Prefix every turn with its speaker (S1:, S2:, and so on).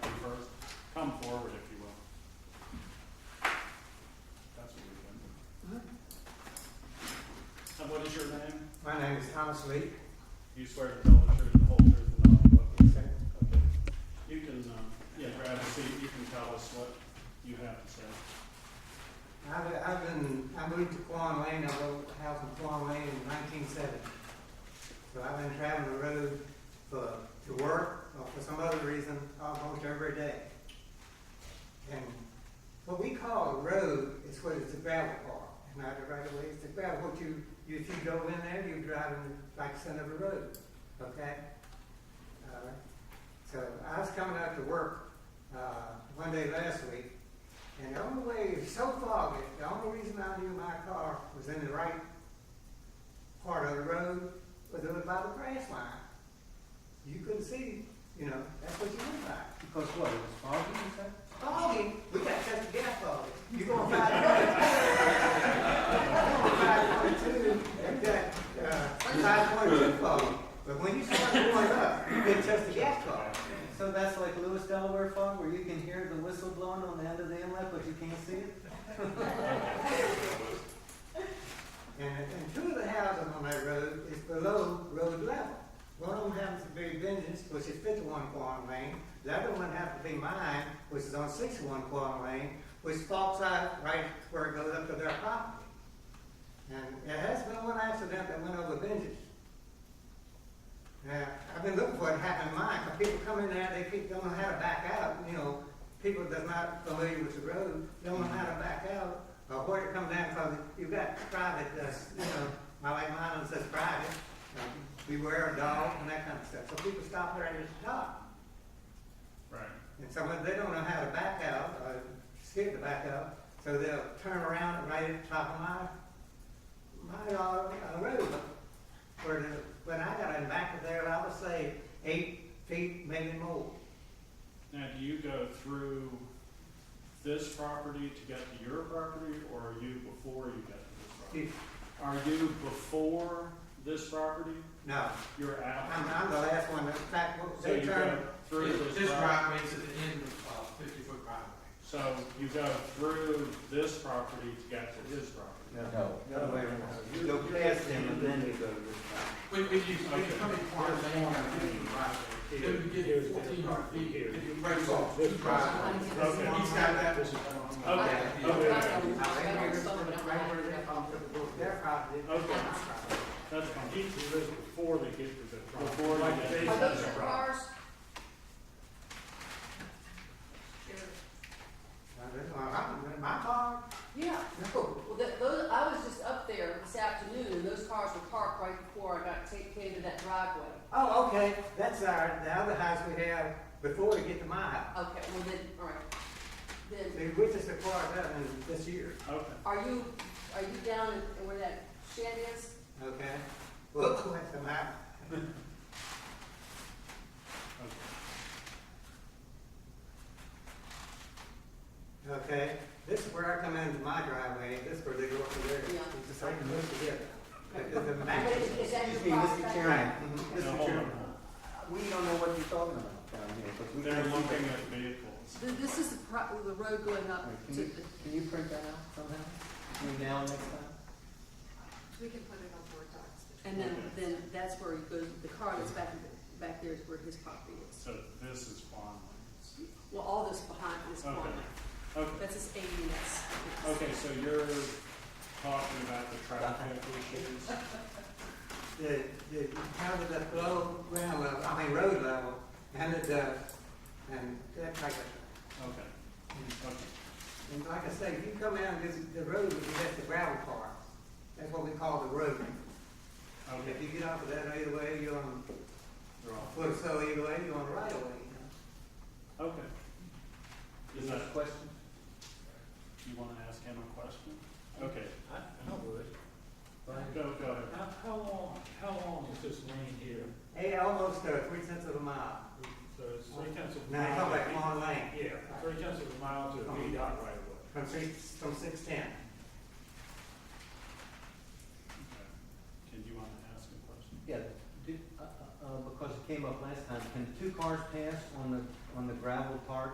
S1: What is your name?
S2: My name is Thomas Lee.
S1: You swear to tell the truth, the whole truth, and nothing but the truth?
S2: Okay.
S1: Okay. You can, um, yeah, grab a seat, you can tell us what you have to say.
S2: I've, I've been, I moved to Quan Lane, I built a house in Quan Lane in nineteen seventy. So I've been traveling the road for, to work or for some other reason almost every day. And what we call a road is what is a gravel park, and not the right of way, it's a gravel, what you, you, if you go in there, you're driving like the center of a road, okay? Uh, So I was coming out to work, uh, one day last week, and the only way, it's so foggy, the only reason I knew my car was in the right part of the road was over by the grass line. You couldn't see, you know, that's what you went by.
S3: Because what, it was foggy, you said?
S2: Foggy, we got to cut the gas foggy. You gonna find five twenty-two, and that, uh, five twenty-two foggy. But when you start going up, it just the gas foggy.
S3: So that's like Lewis Delaware fog, where you can hear the whistle blowing on the end of the inlet, but you can't see it?
S2: And, and two of the houses on that road is below road level. One of them happens to be Vengeance, which is fifty-one Quan Lane. The other one happens to be mine, which is on sixty-one Quan Lane, which falls out right where it goes up to their property. And there has been one accident that went over Vengeance. Now, I've been looking for it to happen in mine, 'cause people come in there, they keep, don't know how to back out, you know. People that's not familiar with the road, don't know how to back out, or where to come down, because you've got private, that's, you know, my like mine is just private. um, Beware of dogs and that kind of stuff, so people stop there and just stop.
S1: Right.
S2: And some of, they don't know how to back out, or skip to back out, so they'll turn around right at the top of my, my, uh, uh, road. Where the, when I got in back of there, I would say eight feet, maybe more.
S1: Now, do you go through this property to get to your property, or are you before you get to this property?
S2: If-
S1: Are you before this property?
S2: No,
S1: You're
S2: I'm,
S1: out?
S2: I'm the last one, in fact,
S1: So
S2: they
S1: you go
S2: turned,
S1: through this
S4: This
S1: property?
S4: driveway is at the end of uh, fifty foot driveway.
S1: So you go through this property to get to his property?
S3: No.
S2: the other way around. You go past them and then you go to this
S4: When, when you, when you come in quarter lane, you're at the end of the driveway. Then you get
S1: Here's
S4: fourteen
S1: the-
S4: feet,
S1: here.
S4: it breaks off two driveways. He's
S1: Okay.
S4: got that.
S1: Okay, okay,
S2: Now, they made this one right where they're from, their property.
S1: Okay. that's fine. He lives before they get to the property. Before they
S5: Are
S1: get to
S5: those
S1: the property.
S5: your cars?
S2: Now, this one, I'm- My car,
S5: Yeah,
S2: no.
S5: well, that, those, I was just up there this afternoon, and those cars were parked right before I got taken into that driveway.
S2: Oh, okay, that's our, the other house we have before we get to my house.
S5: Okay, well then, all right, then,
S2: They witnessed the car that in uh, this year,
S1: Okay,
S5: are you, are you down in where that shed is?
S2: okay? Well, that's the map.
S1: okay.
S2: Okay, this is where I come into my driveway, this is where they go up to there.
S5: Yeah.
S2: It's just like this together. The- the- the map.
S5: But is, is that your
S3: Excuse me, Mr.
S5: property?
S3: Chairman.
S2: Right, mhm.
S1: Now,
S3: Mr.
S1: hold
S3: Chairman,
S1: on.
S3: we don't know what you're talking about down here, because we.
S1: They're
S3: can't see
S1: looking
S3: that.
S1: at vehicles.
S5: Th- This is the pro, the road going up
S3: Wait,
S5: to
S3: Can
S5: the.
S3: you, can you print that out somehow? Between now and next time?
S6: We can put it on board docs.
S5: And then, then that's where he goes, the car that's back, back there is where his property is.
S1: So this is Quan Lane's.
S5: Well, all this behind is
S1: Okay.
S5: farmland.
S1: Okay,
S5: That's his ADS.
S1: okay, so you're talking about the traffic issues?
S2: The, the houses at low ground level, I mean road level, and it, uh, and that's like a
S1: Okay, okay.
S2: And like I say, if you come out this, the road, you get the gravel car. That's what we call the road.
S1: Okay,
S2: If you get off of that either way, you're on,
S1: they're all-
S2: well, so either way, you're on the right of way.
S1: okay. Is
S3: Any
S1: that,
S3: other question?
S1: you wanna ask him a question? Okay,
S7: I, I would.
S1: go, go ahead.
S7: How, how long, how long is this lane here?
S2: Hey, almost uh, three tenths of a mile.
S7: So it's three tenths of a
S2: Now, you talk
S7: mile.
S2: about Long Lane,
S7: Yeah, three tenths of a mile to a VDOT right away.
S2: from six, from six ten.
S1: Okay. Did you wanna ask a question?
S3: Yeah, do, uh, uh, uh, because it came up last time, can two cars pass on the, on the gravel part